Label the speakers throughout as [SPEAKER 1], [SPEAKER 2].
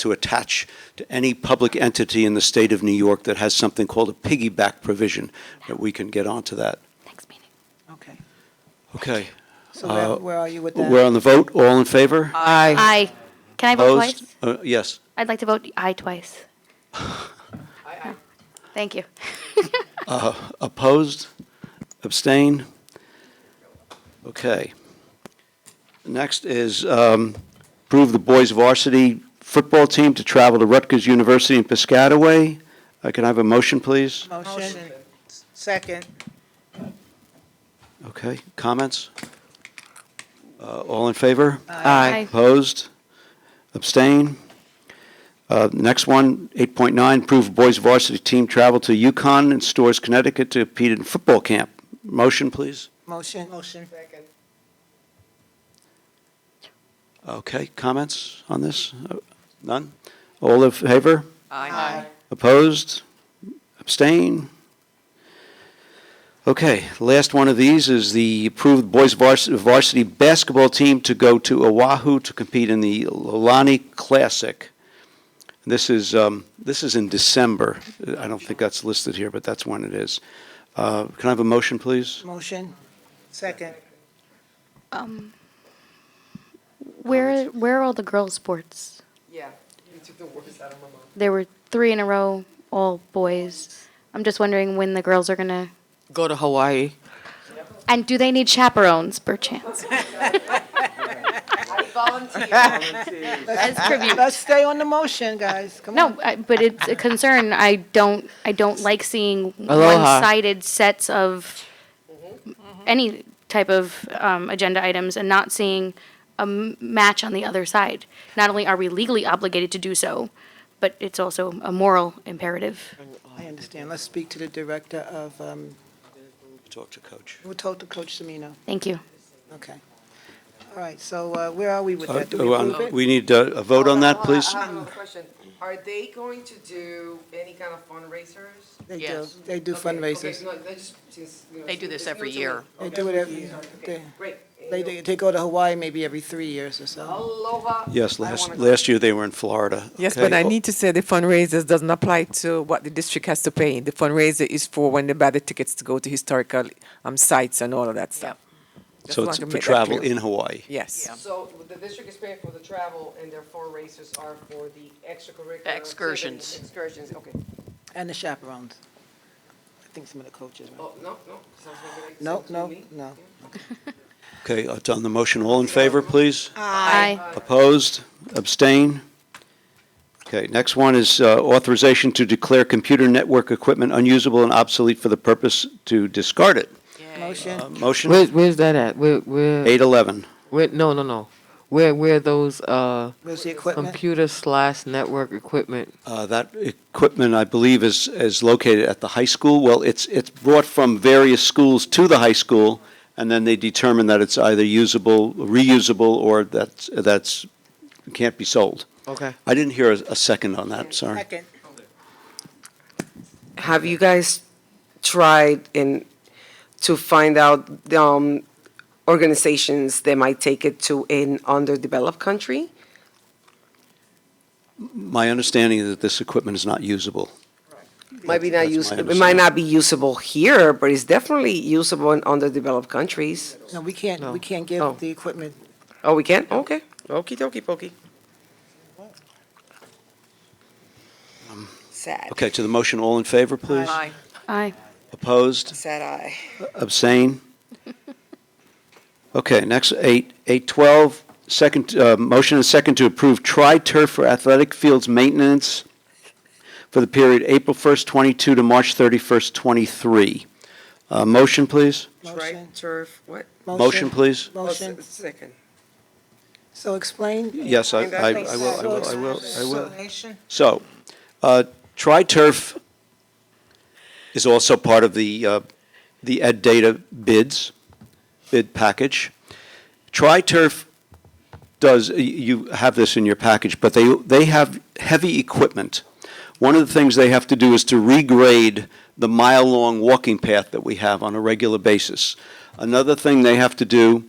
[SPEAKER 1] to attach to any public entity in the state of New York that has something called a piggyback provision, that we can get onto that.
[SPEAKER 2] Next meeting.
[SPEAKER 3] Okay.
[SPEAKER 1] Okay,
[SPEAKER 3] So where-
[SPEAKER 1] Uh,
[SPEAKER 3] where are you with that?
[SPEAKER 1] we're on the vote, all in favor?
[SPEAKER 3] Uh, Aye.
[SPEAKER 2] Aye. Can I vote
[SPEAKER 1] Opposed?
[SPEAKER 2] twice?
[SPEAKER 1] Uh, Yes.
[SPEAKER 2] I'd like to vote aye twice. Thank you.
[SPEAKER 1] Opposed? Abstain? Okay. Next is um, approve the boys varsity football team to travel to Rutgers University in Piscataway. Uh, Can I have a motion, please?
[SPEAKER 3] Motion. Second.
[SPEAKER 1] Okay, comments? Uh, All in favor?
[SPEAKER 2] Aye.
[SPEAKER 1] Opposed? Abstain? Uh, Next one, 8.9, approve boys varsity team travel to Yukon and Stores, Connecticut to compete in football camp. Motion, please?
[SPEAKER 3] Motion. Motion. Second.
[SPEAKER 1] Okay, comments on this? None? All in favor?
[SPEAKER 3] Aye.
[SPEAKER 1] Opposed? Abstain? Okay, last one of these is the approved boys vars- varsity basketball team to go to Oahu to compete in the Lolani Classic. This is, um, this is in December. I don't think that's listed here, but that's when it is. Uh, Can I have a motion, please?
[SPEAKER 3] Motion. Second.
[SPEAKER 2] Where, where are all the girls' sports?
[SPEAKER 4] Yeah, you took the words out of my mouth.
[SPEAKER 2] There were three in a row, all boys. I'm just wondering when the girls are gonna,
[SPEAKER 5] go to Hawaii.
[SPEAKER 2] and do they need chaperones perchance? As tribute.
[SPEAKER 3] Let's stay on the motion, guys. Come on.
[SPEAKER 2] No, I- but it's a concern. I don't, I don't like seeing
[SPEAKER 5] Aloha.
[SPEAKER 2] one-sided sets of any type of um, agenda items and not seeing a m- match on the other side. Not only are we legally obligated to do so, but it's also a moral imperative.
[SPEAKER 3] I understand. Let's speak to the director of, um,
[SPEAKER 1] Talk to Coach.
[SPEAKER 3] who told the coach Semino?
[SPEAKER 2] Thank you.
[SPEAKER 3] Okay. All right, so uh, where are we with that? Do we approve it?
[SPEAKER 1] oh, We need uh, a vote on that, please?
[SPEAKER 4] I have a question. Are they going to do any kind of fundraisers?
[SPEAKER 3] They do,
[SPEAKER 5] Yes.
[SPEAKER 3] they do
[SPEAKER 4] Okay, okay,
[SPEAKER 3] fundraisers.
[SPEAKER 4] no, they just- just, you know,
[SPEAKER 5] They do this
[SPEAKER 4] it's new
[SPEAKER 5] every
[SPEAKER 4] to me.
[SPEAKER 5] year.
[SPEAKER 3] They
[SPEAKER 4] Okay.
[SPEAKER 3] do it every, they,
[SPEAKER 4] Great.
[SPEAKER 3] they, do- they go to Hawaii maybe every three years or so.
[SPEAKER 4] Aloha.
[SPEAKER 1] Yes,
[SPEAKER 4] I
[SPEAKER 1] last,
[SPEAKER 4] wanna go.
[SPEAKER 1] last year they were in Florida.
[SPEAKER 6] Yes,
[SPEAKER 1] Okay.
[SPEAKER 6] but I need to say the fundraisers doesn't apply to what the district has to pay. The fundraiser is for when they buy the tickets to go to historical um, sites and all of that stuff. Just
[SPEAKER 1] So
[SPEAKER 6] want
[SPEAKER 1] it's for
[SPEAKER 6] to make that
[SPEAKER 1] travel
[SPEAKER 6] clear.
[SPEAKER 1] in Hawaii.
[SPEAKER 6] Yes.
[SPEAKER 4] So the district is paying for the travel and their fundraisers are for the extracurricular.
[SPEAKER 5] Excursions.
[SPEAKER 4] activities, Excursions, okay.
[SPEAKER 3] And the chaperones. I think some of the coaches, right?
[SPEAKER 4] Oh, no, no. sounds like it-
[SPEAKER 3] No,
[SPEAKER 4] sounds
[SPEAKER 3] no,
[SPEAKER 4] to me.
[SPEAKER 3] no.
[SPEAKER 1] Okay, it's on the motion. All in favor, please?
[SPEAKER 2] Aye.
[SPEAKER 4] Uh,
[SPEAKER 1] Opposed? Abstain? Okay, next one is uh, authorization to declare computer network equipment unusable and obsolete for the purpose to discard it.
[SPEAKER 3] Motion.
[SPEAKER 1] Uh, Motion
[SPEAKER 5] Where, where's that at? Where, where,
[SPEAKER 1] 811.
[SPEAKER 5] where, no, no, no. Where, where those, uh,
[SPEAKER 3] Where's the equipment?
[SPEAKER 5] computer slash network equipment?
[SPEAKER 1] Uh, That equipment, I believe, is, is located at the high school. Well, it's, it's brought from various schools to the high school, and then they determine that it's either usable, reusable, or that's, that's, can't be sold.
[SPEAKER 5] Okay.
[SPEAKER 1] I didn't hear a, a second on that, sorry.
[SPEAKER 3] Second.
[SPEAKER 4] Have you guys tried in, to find out um, organizations that might take it to an underdeveloped country?
[SPEAKER 1] My understanding is that this equipment is not usable.
[SPEAKER 4] Might be not
[SPEAKER 1] That's my
[SPEAKER 4] usable, it might
[SPEAKER 1] understanding.
[SPEAKER 4] not be usable here, but it's definitely usable in underdeveloped countries.
[SPEAKER 3] No, we can't, we can't
[SPEAKER 4] Oh.
[SPEAKER 3] give the equipment.
[SPEAKER 4] Oh, we can? Okay. Okey dokey pokey. Sad,
[SPEAKER 1] Okay, to the motion, all in favor, please?
[SPEAKER 2] Aye.
[SPEAKER 1] Opposed?
[SPEAKER 4] sad eye.
[SPEAKER 1] Abstain? Okay, next, eight, eight twelve, second, uh, motion and second to approve tri-turf for athletic fields maintenance for the period April first, twenty-two to March thirty-first, twenty-three. Uh, motion, please?
[SPEAKER 3] Motion.
[SPEAKER 4] turf, what?
[SPEAKER 1] Motion, please?
[SPEAKER 3] Motion.
[SPEAKER 4] Oh, Second.
[SPEAKER 3] So explain.
[SPEAKER 1] Yes, I, I I will,
[SPEAKER 4] That's
[SPEAKER 1] I will, I will, I will.
[SPEAKER 3] Explanation.
[SPEAKER 1] So, uh, tri-turf is also part of the, uh, the Ed Data bids, bid package. Tri-turf does, y- you have this in your package, but they, they have heavy equipment. One of the things they have to do is to regrade the mile-long walking path that we have on a regular basis. Another thing they have to do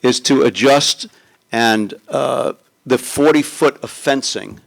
[SPEAKER 1] is to adjust and uh, the 40-foot of fencing